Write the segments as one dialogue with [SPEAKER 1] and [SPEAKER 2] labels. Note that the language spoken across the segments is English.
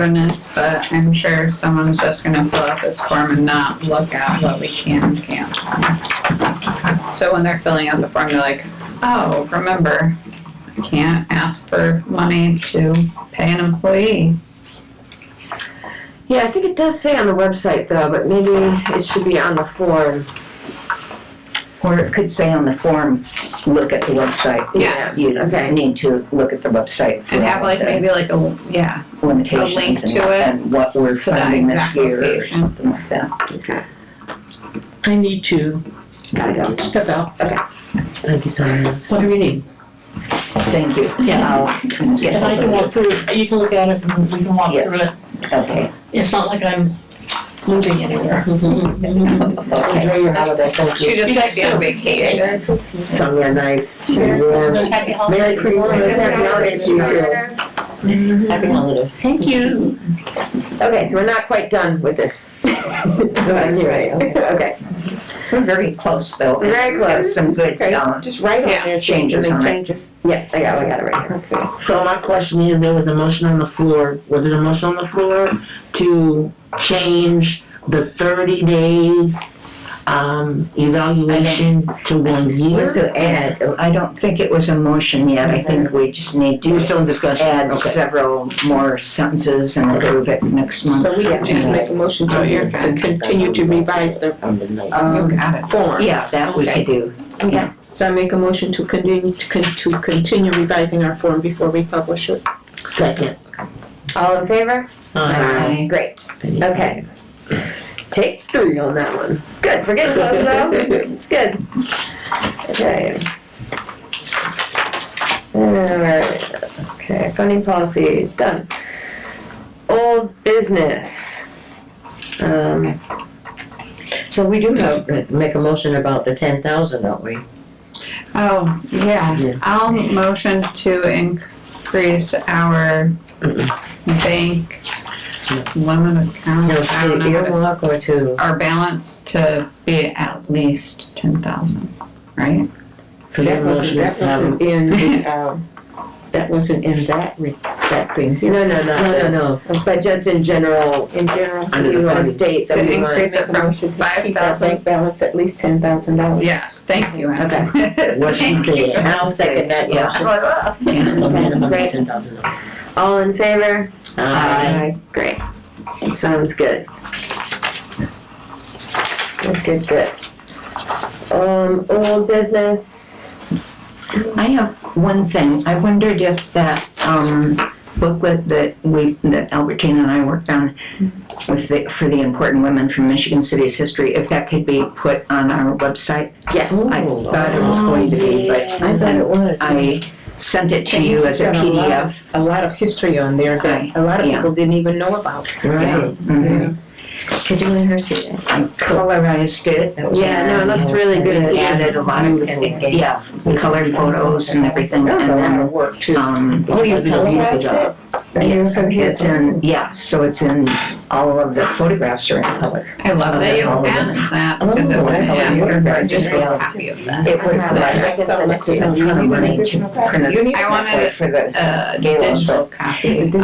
[SPEAKER 1] ordinance, but I'm sure someone's just gonna fill out this form and not look at what we can and can't. So when they're filling out the form, they're like, oh, remember, I can't ask for money to pay an employee.
[SPEAKER 2] Yeah, I think it does say on the website though, but maybe it should be on the form.
[SPEAKER 3] Or it could say on the form, look at the website.
[SPEAKER 1] Yes.
[SPEAKER 3] You
[SPEAKER 2] Okay.
[SPEAKER 3] need to look at the website for
[SPEAKER 1] And have
[SPEAKER 3] all
[SPEAKER 1] like
[SPEAKER 3] the
[SPEAKER 1] maybe like a, yeah,
[SPEAKER 3] limitations
[SPEAKER 1] to
[SPEAKER 3] and,
[SPEAKER 1] it,
[SPEAKER 3] and what we're
[SPEAKER 1] to that
[SPEAKER 3] finding this
[SPEAKER 1] exact
[SPEAKER 3] year or
[SPEAKER 1] location.
[SPEAKER 3] something like that.
[SPEAKER 2] Okay.
[SPEAKER 4] I need to
[SPEAKER 2] Gotta go.
[SPEAKER 4] step out.
[SPEAKER 2] Okay.
[SPEAKER 4] Thank you, Sonia. What do you need?
[SPEAKER 3] Thank you.
[SPEAKER 4] Yeah.
[SPEAKER 3] I'll get
[SPEAKER 4] And I can
[SPEAKER 3] hold
[SPEAKER 4] walk
[SPEAKER 3] of
[SPEAKER 4] through, it. you can look at it and we can walk
[SPEAKER 3] Yes.
[SPEAKER 4] through it.
[SPEAKER 3] it. Okay,
[SPEAKER 4] It's not like I'm moving anywhere.
[SPEAKER 3] okay.
[SPEAKER 4] your holiday, thank
[SPEAKER 1] she just
[SPEAKER 4] You
[SPEAKER 1] might
[SPEAKER 4] guys
[SPEAKER 1] be on
[SPEAKER 4] too.
[SPEAKER 1] vacation.
[SPEAKER 5] Sonia, nice.
[SPEAKER 4] Merry Christmas, happy holidays.
[SPEAKER 5] Merry Christmas, happy holidays to you too.
[SPEAKER 4] Happy holidays. Thank you.
[SPEAKER 2] Okay, so we're not quite done with this. That's what I'm hearing. Okay.
[SPEAKER 3] We're very close though.
[SPEAKER 2] We're very
[SPEAKER 3] We've got
[SPEAKER 2] close.
[SPEAKER 3] Some good,
[SPEAKER 5] Okay.
[SPEAKER 3] um,
[SPEAKER 5] Just write
[SPEAKER 1] on there,
[SPEAKER 3] changes on it.
[SPEAKER 5] Changes.
[SPEAKER 2] Yes, I got, it, I got it right here.
[SPEAKER 5] Okay. So my question is, there was a motion on the floor, was it a motion on the floor to change the thirty days, um, evaluation to one year?
[SPEAKER 3] Was to add, I don't think it was a motion yet, I think we just need
[SPEAKER 5] We're
[SPEAKER 3] to
[SPEAKER 5] still in discussion,
[SPEAKER 3] add
[SPEAKER 5] okay.
[SPEAKER 3] several more sentences and approve it next month.
[SPEAKER 6] So we have to make a motion
[SPEAKER 1] Oh, you're
[SPEAKER 6] to, to
[SPEAKER 1] fine.
[SPEAKER 6] continue to revise the uh,
[SPEAKER 1] You
[SPEAKER 3] Um,
[SPEAKER 1] got it.
[SPEAKER 6] form.
[SPEAKER 3] yeah, that we could do.
[SPEAKER 6] So I make a motion to continue, to con- to continue revising our form before we publish it.
[SPEAKER 5] Second.
[SPEAKER 2] All in favor?
[SPEAKER 6] Uh,
[SPEAKER 5] Aye.
[SPEAKER 2] Great. Okay. Take three on that one. Good, we're getting close though. It's good. Okay. Alright, okay, funding policy is done. Old business. Um,
[SPEAKER 7] So we do have, make a motion about the ten thousand, don't we?
[SPEAKER 1] Oh,
[SPEAKER 7] Yeah.
[SPEAKER 1] yeah, I'll motion to increase our bank limit account,
[SPEAKER 7] No,
[SPEAKER 1] I don't
[SPEAKER 7] to
[SPEAKER 1] know, how to-
[SPEAKER 7] earmark or to,
[SPEAKER 1] our balance to be at least ten thousand, right?
[SPEAKER 5] So your
[SPEAKER 6] That wasn't,
[SPEAKER 5] motion is,
[SPEAKER 6] that
[SPEAKER 5] um,
[SPEAKER 6] wasn't in, the, um, that wasn't in that, re- that thing here.
[SPEAKER 2] no, no, not
[SPEAKER 7] no, no,
[SPEAKER 2] this,
[SPEAKER 7] no,
[SPEAKER 2] but just in general,
[SPEAKER 6] In general,
[SPEAKER 5] Under the
[SPEAKER 2] you wanna
[SPEAKER 5] funding.
[SPEAKER 2] state that
[SPEAKER 1] To
[SPEAKER 2] we want.
[SPEAKER 1] increase it
[SPEAKER 6] make a
[SPEAKER 1] from
[SPEAKER 6] motion to
[SPEAKER 1] five
[SPEAKER 6] keep our
[SPEAKER 1] thousand,
[SPEAKER 6] bank balance at least ten thousand dollars.
[SPEAKER 1] yes, thank you, Anna.
[SPEAKER 5] what she
[SPEAKER 1] Thank you.
[SPEAKER 5] said.
[SPEAKER 7] and I'll second that
[SPEAKER 3] Yeah.
[SPEAKER 7] motion.
[SPEAKER 5] So we have about
[SPEAKER 2] Great.
[SPEAKER 5] $10,000.
[SPEAKER 2] All in favor?
[SPEAKER 5] Aye.
[SPEAKER 2] Great. It sounds good. Good, good, good. Um, old business,
[SPEAKER 3] I have one thing. I wondered if that um, booklet that we, that Albertine and I worked on with the, for the important women from Michigan City's history, if that could be put on our website.
[SPEAKER 2] yes.
[SPEAKER 3] I thought it was going to be, but
[SPEAKER 6] Oh, I thought it was.
[SPEAKER 3] I sent it to you as a
[SPEAKER 6] Got a lot
[SPEAKER 3] PDF.
[SPEAKER 6] of- A lot of history on there
[SPEAKER 3] Right.
[SPEAKER 6] that a lot of
[SPEAKER 3] Yeah.
[SPEAKER 6] people didn't even know about.
[SPEAKER 3] Yeah. Mhm.
[SPEAKER 2] Could you let her see that?
[SPEAKER 3] I colorized it.
[SPEAKER 2] Yeah, no, it looks really good.
[SPEAKER 3] Yeah, there's a lot of, yeah, colored photos and everything.
[SPEAKER 6] That was
[SPEAKER 3] and
[SPEAKER 6] a lot
[SPEAKER 3] then,
[SPEAKER 6] of work too.
[SPEAKER 3] Um,
[SPEAKER 5] Oh, you did a beautiful
[SPEAKER 6] televised
[SPEAKER 5] job.
[SPEAKER 3] Yes, it's in, yeah, so it's in, all of the photographs are in color.
[SPEAKER 1] I love that you asked that, because it was gonna ask her for a digital copy of that.
[SPEAKER 3] It was like
[SPEAKER 2] can send it to you.
[SPEAKER 3] a ton of money to print
[SPEAKER 6] You
[SPEAKER 3] it.
[SPEAKER 6] need
[SPEAKER 1] I wanted
[SPEAKER 3] like, For the,
[SPEAKER 1] A uh, digital copy of it.
[SPEAKER 3] and,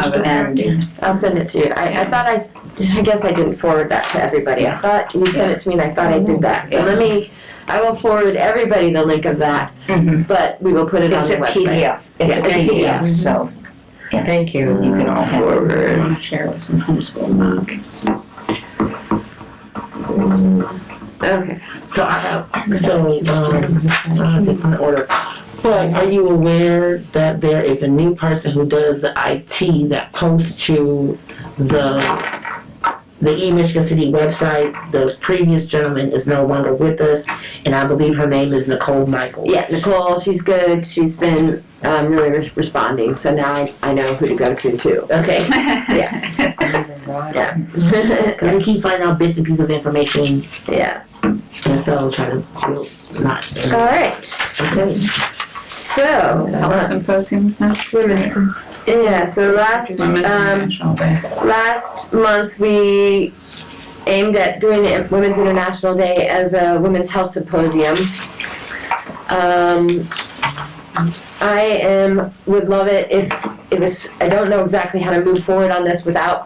[SPEAKER 2] I'll send it to you. I, I thought I, s- I guess I didn't forward that to everybody. I thought you sent it to me and I thought I did that. But let me, I will forward everybody the link of that,
[SPEAKER 3] mhm.
[SPEAKER 2] but we will put it on
[SPEAKER 3] it's
[SPEAKER 2] the
[SPEAKER 3] a
[SPEAKER 2] website.
[SPEAKER 3] PDF, it's a
[SPEAKER 2] Yeah, it's a
[SPEAKER 3] PDF, so
[SPEAKER 7] Thank you.
[SPEAKER 3] you can all forward.
[SPEAKER 1] I wanna share with some homeschool moms.
[SPEAKER 2] Okay.
[SPEAKER 5] So I have, so, um, how is it in order? But are you aware that there is a new person who does the IT that posts to the, the E-Michigan City website? The previous gentleman is no longer with us, and I believe her name is Nicole Michael.
[SPEAKER 2] Yeah, Nicole, she's good. She's been um, really re- responding, so now I, I know who to go to too.
[SPEAKER 5] Okay,
[SPEAKER 2] Yeah.
[SPEAKER 5] because we keep finding out bits and pieces of information,
[SPEAKER 2] yeah.
[SPEAKER 5] and so try to, build- not,
[SPEAKER 2] All right. So,
[SPEAKER 1] Health symposiums next.
[SPEAKER 2] women's. Yeah, so last
[SPEAKER 1] Women's
[SPEAKER 2] um,
[SPEAKER 1] International Day.
[SPEAKER 2] last month we aimed at doing the Women's International Day as a women's health symposium. Um, I am, would love it if it was, I don't know exactly how to move forward on this without